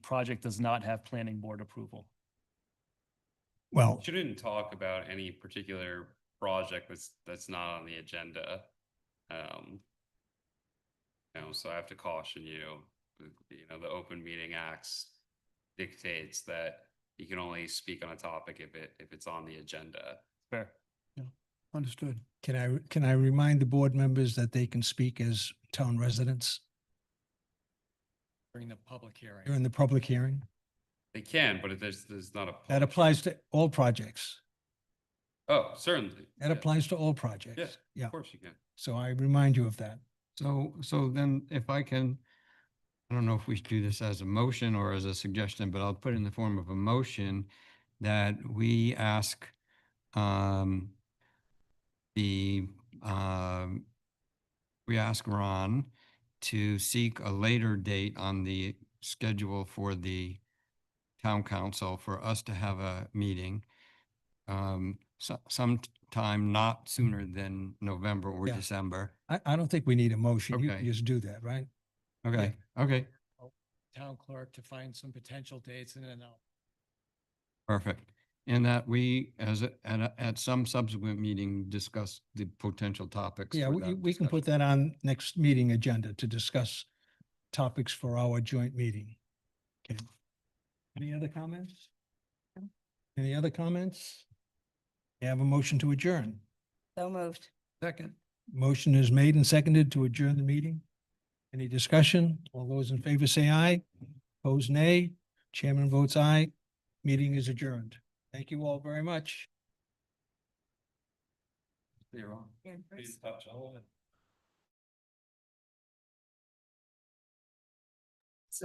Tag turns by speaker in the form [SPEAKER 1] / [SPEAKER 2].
[SPEAKER 1] project does not have planning board approval.
[SPEAKER 2] Well,
[SPEAKER 3] Shouldn't talk about any particular project that's, that's not on the agenda. Um. You know, so I have to caution you, you know, the open meeting acts dictates that you can only speak on a topic if it, if it's on the agenda.
[SPEAKER 1] Fair.
[SPEAKER 2] understood. Can I, can I remind the board members that they can speak as town residents
[SPEAKER 4] during the public hearing.
[SPEAKER 2] during the public hearing?
[SPEAKER 3] They can, but if there's, there's not a.
[SPEAKER 2] That
[SPEAKER 3] public-
[SPEAKER 2] applies to all projects.
[SPEAKER 3] Oh, certainly.
[SPEAKER 2] That
[SPEAKER 3] Yeah,
[SPEAKER 2] applies to all projects. Yeah,
[SPEAKER 3] Of course you can.
[SPEAKER 2] so I remind you of that.
[SPEAKER 4] So, so then if I can, I don't know if we should do this as a motion or as a suggestion, but I'll put it in the form of a motion that we ask um the um we ask Ron to seek a later date on the schedule for the town council for us to have a meeting um so sometime not sooner than November or
[SPEAKER 2] Yeah.
[SPEAKER 4] December.
[SPEAKER 2] I, I don't think we need a motion. You
[SPEAKER 4] Okay.
[SPEAKER 2] can just do that, right?
[SPEAKER 4] Okay, okay,
[SPEAKER 5] town clerk to find some potential dates and then I'll
[SPEAKER 4] perfect. And that we, as, a- at, a- at some subsequent meeting, discuss the potential topics.
[SPEAKER 2] Yeah,
[SPEAKER 4] for
[SPEAKER 2] we,
[SPEAKER 4] that
[SPEAKER 2] we can put
[SPEAKER 4] discussion.
[SPEAKER 2] that on next meeting agenda to discuss topics for our joint meeting. Okay. Any other comments? Any other comments? You have a motion to adjourn.
[SPEAKER 6] So moved.
[SPEAKER 2] Second. Motion is made and seconded to adjourn the meeting. Any discussion? All those in favor say aye. Opposed, nay. Chairman votes aye. Meeting is adjourned. Thank you all very much.
[SPEAKER 3] You're wrong.
[SPEAKER 6] Yeah,
[SPEAKER 3] Please touch all of it.